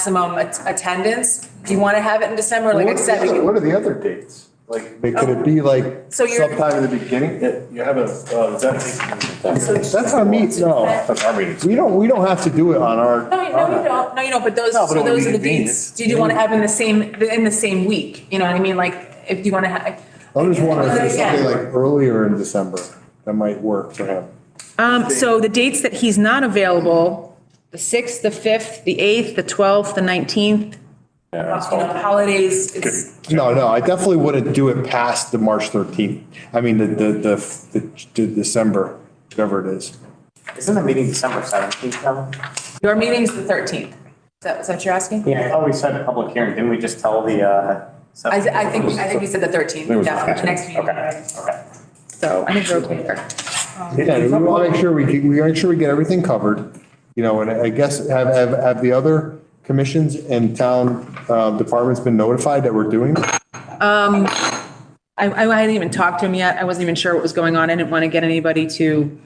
maximum at- attendance? Do you want to have it in December, like I said? we can- What are the other dates? Like, oh. could it be like So you're- sometime in the beginning? You have a, uh, that. That's our meet, no. That's our meeting. We don't, we don't have to do it on our. No, you- no, you don't, no, you don't, but those, No, but so it would those be are the convenient. dates. Do you want to have in the same, in the same week? You know what I mean? Like, if you want to have. I'm just wondering if there's something Yeah. like earlier in December that might work for him. Um, so the dates that he's not available, the 6th, the 5th, the 8th, the 12th, the 19th. you know, holidays, it's, No, no, I definitely wouldn't do it past the March 13th. I mean, the, the, the- the, the December, whatever it is. Isn't the meeting December seventeenth though? your meeting's the thirteenth. Is that, is that what you're asking? I thought we said public hearing, didn't we just tell the, uh? I, I think, I think we said the thirteenth, It was the yeah, 13th. next meeting. Okay, okay. So I think we're okay there. Yeah, we want to make sure we, get- we make sure we get everything covered, you know, and I guess have, have, have the other commissions and town, uh, departments been notified that we're doing? this? I, I hadn't even talked to him yet. I wasn't even sure what was going on. I didn't want to get anybody to,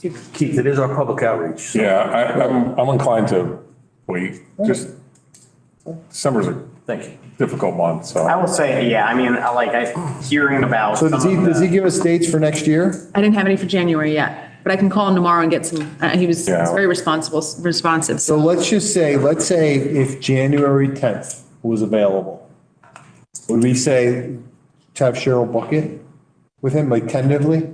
Keith, it is our public outreach. Yeah, I, I'm, I'm inclined to wait, just, December's a Thank you. difficult month, I so. will say, yeah, I mean, I like, I, hearing about. So does he, some of does he the- give us dates for next year? I didn't have any for January yet, but I can call him tomorrow and get some, uh, he was he was Yeah. very responsible, responsive. So So let's just say, let's say if January 10th was available, would we say to have Cheryl Bucket with him, like tentatively?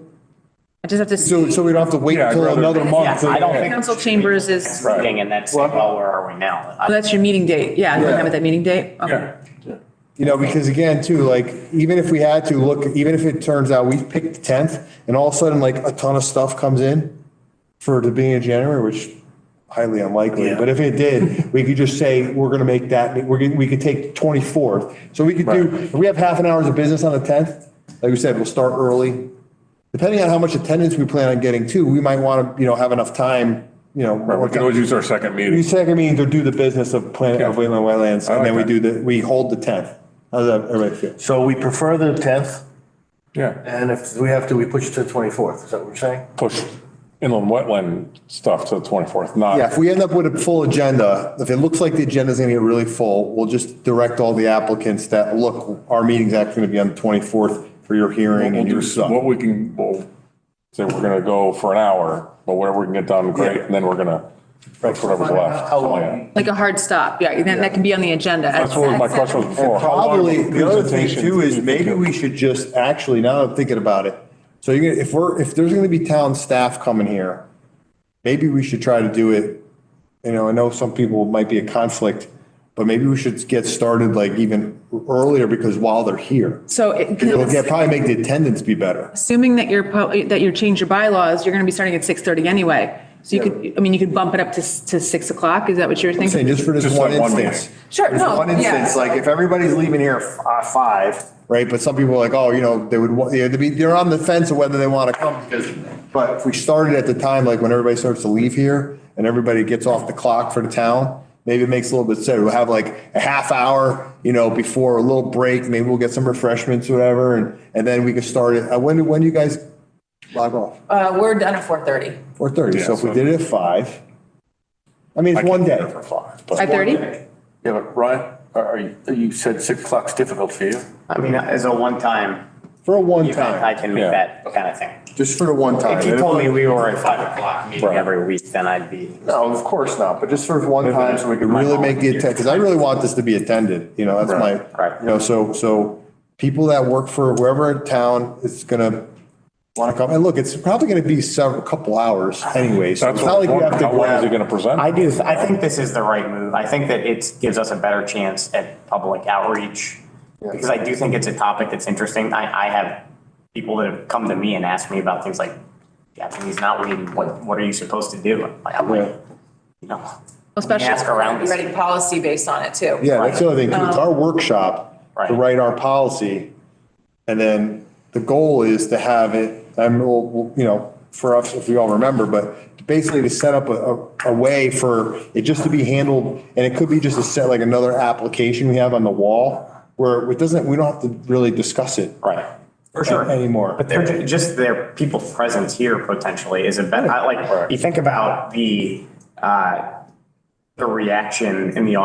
I just have to So, see, so we don't have to wait Yeah, I'd until rather- another month? Yeah, I don't think- council chambers is, Right. Meeting and then say, well, where are we now? oh, I- that's your meeting date. Yeah, you Yeah. have it that meeting date? Okay. Yeah, You know, because again, too, like, even if we had to look, even if it turns out we picked the tenth and all of a sudden like a ton of stuff comes in for the beginning of January, which highly unlikely, Yeah. but if it did, we could just say, we're gonna make that, we're gonna, we could take twenty-fourth. So we could do, Right. if we have half an hour's of business on the tenth, like we said, we'll start early. Depending on how much attendance we plan on getting too, we might wanna, you know, have enough time, you know. right, we can always use our second You meeting. second meeting to do the business of plan of Okay. Wayland Wetlands, I and like then we that. do the, we hold the tenth. How does that, everybody feel? So we prefer the 10th, Yeah, and if we have to, we push it to the 24th. Is that what you're saying? push inland wetland stuff to the 24th, not. Yeah, if we end up with a full agenda, if it looks like the agenda's gonna get really full, we'll just direct all the applicants that, look, our meeting's actually gonna be on the twenty-fourth for your hearing We'll and do your s- stuff. what we can, we'll say we're gonna go for an hour, but whatever we can get done, great, and then we're gonna, fix whatever's left. How something like long? that. Like a hard stop. Yeah, and that, that can be on the agenda. That's what my question was before. How long Probably, the other thing presentation too is do you think maybe it- we should just, actually, now that I'm thinking about it, so you're gonna, if we're, if there's gonna be town staff coming here, maybe we should try to do it, you know, I know some people might be a conflict, but maybe we should get started like even earlier because while they're here. So it- It'll get- probably make the attendance be better. assuming that you're, po- that you change your bylaws, you're going to be starting at 6:30 anyway. So you could, I mean, you could bump it up to, s- to 6 o'clock. Is that what you're I'm saying thinking? just for this Just one like one meeting. instance. Sure, There's no, one instance, yeah. like if everybody's leaving here at uh, five, right? But some people are like, oh, you know, they would, wa- you know, they'd be, they're on the fence of whether they want to come. because- But if we started at the time, like when everybody starts to leave here and everybody gets off the clock for the town, maybe it makes a little bit sense. We'll have like a half hour, you know, before a little break, maybe we'll get some refreshments, or whatever, and, and then we can start it. Uh, When, when do you guys log off? Uh, we're done at four thirty. Four thirty. Yeah, So if we so- did it at five, I mean, I it's can't one be day. there for five, but- 5:30? Yeah, but Ryan, are are you, you said 6 o'clock's difficult for you? I mean, as a one-time For a one event, I time, can make Yeah. that kind of thing. just for the one time. If you told me we were at five o'clock meeting Right. every week, then I'd be. No, of course not, but just for one time, so we can My really make the volunteer. attend, because I really want this to be attended, you know, that's my, Right, right. you know, so, so people that work for whoever in town is gonna want to come, and look, it's probably gonna be several, couple hours anyway, so That's it's not what, like we have to how long is he grab. gonna present? I do, I think this is the right move. I think that it gives us a better chance at public outreach. Because I do think it's a topic that's interesting. I, I have people that have come to me and asked me about things like Japanese knotweed, what, what are you supposed to do? Like, I'm like, you know, we can Especially- ask around. this. Ready policy based on it too. Yeah, that's the other thing, too. it's our workshop to Um, Right. write our policy, and then the goal is to have it, I'm, we'll- we'll, you know, for us, if we all remember, but basically to set up a, a, a way for it just to be handled, and it could be just a set, like another application we have on the wall, where it doesn't, we don't have to really discuss it Right. For sure. anymore. But they're, ju- just their people presence here potentially is a bet, I like, you think about the, uh, the reaction in the audience